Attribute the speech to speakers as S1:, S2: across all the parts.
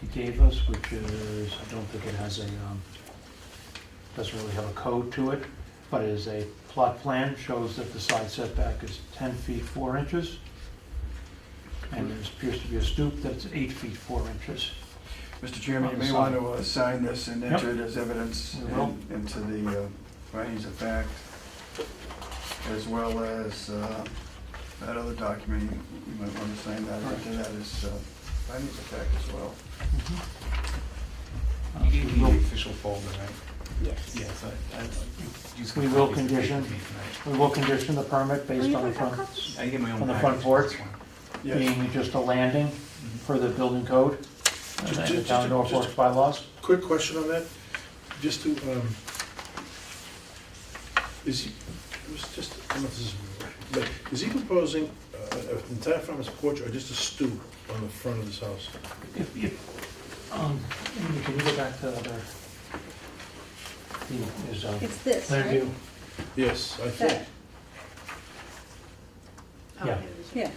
S1: he gave us, which is, I don't think it has a, um, doesn't really have a code to it, but it is a plot plan, shows that the side setback is 10 feet 4 inches. And there appears to be a stoop that's 8 feet 4 inches.
S2: Mr. Chairman, you may
S1: Sign.
S2: want to uh, sign this and
S1: Yep.
S2: enter it as evidence
S1: We will.
S2: in- into the uh, findings of fact, as well as uh, that other document, you you might want to sign that,
S1: Correct.
S2: into that as uh, findings of fact as well.
S1: Uh,
S3: Mm-hmm. You gave
S1: we
S3: me
S1: will-
S3: the official folder, right?
S4: Yes.
S3: Yes, I, I. you just-
S1: We will
S3: you
S1: condition.
S3: gave me tonight.
S1: We will condition the permit
S4: Will
S1: based
S4: you
S1: on the
S4: put that
S1: front,
S4: copy?
S3: I get my own.
S1: On the
S3: package,
S1: front porch?
S3: that's fine.
S5: Yes.
S1: being just a landing for the building code and
S5: Just-
S1: the
S5: just-
S1: town of
S5: just-
S1: Norfolk's bylaws.
S5: Quick question on that, just to, um, is he, it was just, I don't know if this is, but is he proposing uh, an entire farmer's porch or just a stoop on the front of this house?
S1: If, if, um, Amy, can you go back to the other? the- Is, uh,
S4: It's this,
S1: land
S4: right?
S1: view,
S5: Yes, I
S4: That,
S5: think,
S4: Oh.
S1: yeah,
S4: yeah.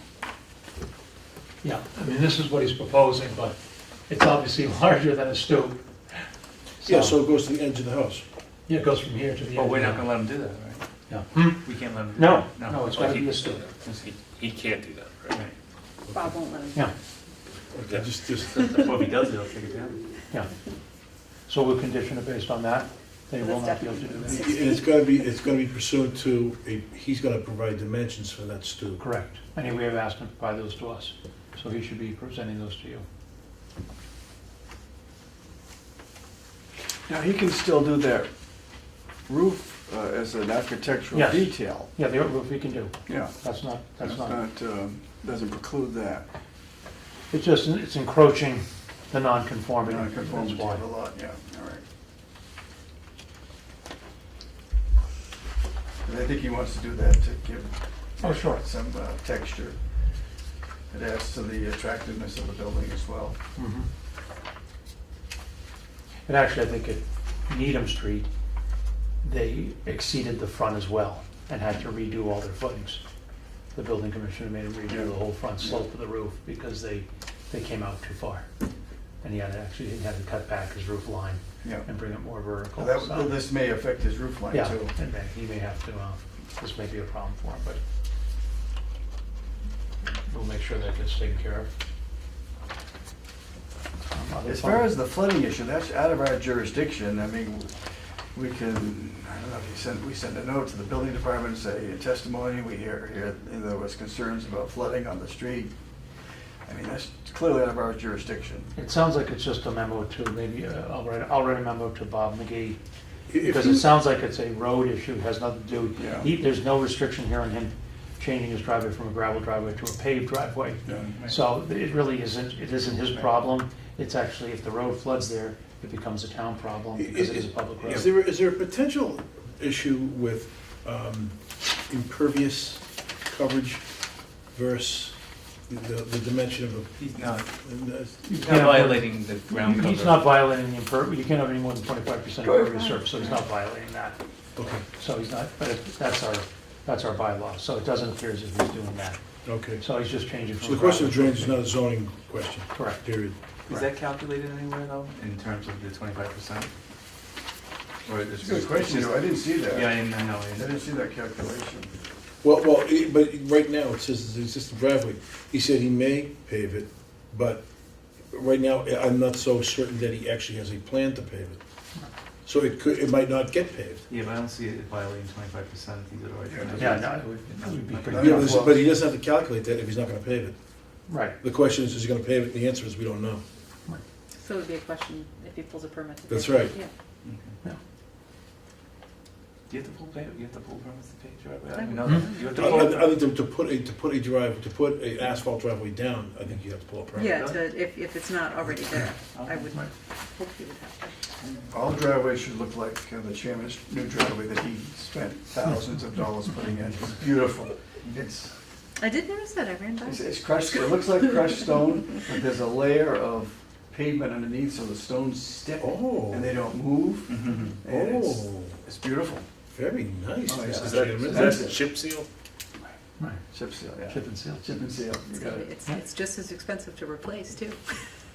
S1: yeah. I mean, this is what he's proposing, but it's obviously larger than a stoop.
S5: yeah, so it goes to the edge of the house.
S1: Yeah, it goes from here to the.
S3: But
S1: end.
S3: Oh, we're not gonna let him do that, right?
S1: Yeah.
S3: We can't let him do
S1: No,
S3: that.
S1: no, it's
S3: Oh,
S1: gotta
S3: he-
S1: be a stoop.
S6: He, he can't do that,
S3: Right.
S4: Bob won't let him.
S1: Yeah,
S5: Okay, just, just,
S3: Well, if he does it, I'll take it down.
S1: yeah. So we'll condition it based on that. They will
S4: That's
S1: not be able to do
S4: definitely-
S1: that.
S5: and it's gonna be, it's gonna be pursuant to, a- he's gonna provide dimensions for that stoop.
S1: Correct. Anyway, we have asked him to provide those to us, so he should be presenting those to you.
S2: Now, he can still do that roof uh, as an architectural
S1: Yes.
S2: detail.
S1: Yeah, the roof we can do.
S2: Yeah,
S1: That's not, that's
S2: that's
S1: not,
S2: not, um, doesn't preclude that.
S1: it's just, it's encroaching the non-conforming. that's
S2: Conformity
S1: why.
S2: of the lot, yeah, all right. And I think he wants to do that to give
S1: Oh, sure.
S2: some uh, texture. It adds to the attractiveness of the building as well.
S1: Mhm. And actually, I think at Needham Street, they exceeded the front as well and had to redo all their footings. The building commissioner made them redo the whole front slope of the roof because they, they came out too far. And he had to actually, he had to cut back his roof line
S2: Yeah.
S1: and bring it more vertical.
S2: That-
S1: so-
S2: This may affect his roof line
S1: Yeah,
S2: too.
S1: and then he may have to, um, this may be a problem for him, but we'll make sure that gets taken care of. Um, other
S2: As far
S1: problem-
S2: as the flooding issue, that's out of our jurisdiction. I mean, we can, I don't know if you send, we send a note to the building department, say, "In testimony, we hear, hear there was concerns about flooding on the street. I mean, that's clearly out of our jurisdiction.
S1: It sounds like it's just a memo to, maybe, uh, I'll write, I'll write a memo to Bob McGee,
S5: If
S1: because
S5: you-
S1: it sounds like it's a road issue, has nothing to do.
S2: Yeah.
S1: He, there's no restriction here on him changing his driveway from a gravel driveway to a paved driveway. So it really isn't, it isn't his problem, it's actually, if the road floods there, it becomes a town problem, because it is a public road.
S5: Is there, is there a potential issue with um, impervious coverage versus the, the dimension of
S3: He's not,
S5: the?
S3: he's
S1: can't-
S3: not violating the ground cover.
S1: He's not violating the impervious, you can't have any more than twenty-five percent
S2: Good.
S1: impervious surface, so he's not violating that.
S5: Okay,
S1: So he's not, but it- that's our, that's our bylaw, so it doesn't appear as if he's doing that.
S5: okay.
S1: So he's just changing from.
S5: So the question of
S1: gravel
S5: drainage is not a zoning question,
S1: to- Correct.
S5: period.
S3: Is that calculated anywhere though, in terms of the twenty-five percent? Or is
S2: It's
S3: it?
S2: a good question, though. I didn't see that.
S3: Yeah, I didn't I know.
S2: I
S3: I didn't-
S2: didn't see that calculation.
S5: Well, well, it- but right now, it says it's an existing driveway. He said he may pave it, but right now, I- I'm not so certain that he actually has a plan to pave it. So it could, it might not get paved.
S3: Yeah, but I don't see it violating twenty-five percent either way.
S1: Yeah, no, it would- it would be pretty,
S5: Yeah, but but he doesn't have to calculate that if he's not gonna pave it.
S1: right.
S5: The question is, is he gonna pave it? The answer is, we don't know.
S4: So it would be a question if he pulls a permit. to do
S5: That's
S4: it.
S5: right.
S4: Yeah.
S3: Okay.
S1: No.
S3: Do you have to pull pay, do you have to pull permits to pay driveway? I
S4: I
S3: didn't know
S4: don't
S3: that. You have to
S5: I Mm-hmm. I- I
S3: pull.
S5: think to, to put a, to put a drive, to put a asphalt driveway down, I think you have to pull a permit.
S4: Yeah, to, if, if it's not already there, I would
S3: Right.
S4: hope he would have to.
S2: All driveways should look like uh, the chairman's new driveway that he spent thousands of dollars putting in. It's beautiful. It's,
S4: I did notice that, I ran by.
S2: It's,
S4: it.
S2: it's crushed, it looks like crushed stone, but there's a layer of pavement underneath, so the stones stick
S5: Oh.
S2: and they don't move.
S3: Mhm.
S2: And it's,
S5: Oh,
S2: it's beautiful.
S5: very nice,
S2: Oh, yeah.
S5: Mr.
S2: Is
S5: Chairman.
S2: is
S5: That's-
S2: that-
S6: chip seal?
S1: Right.
S2: Chip seal, yeah.
S1: Chip and seal.
S2: Chip and seal, you got it.
S4: It's, it's just as expensive to replace too.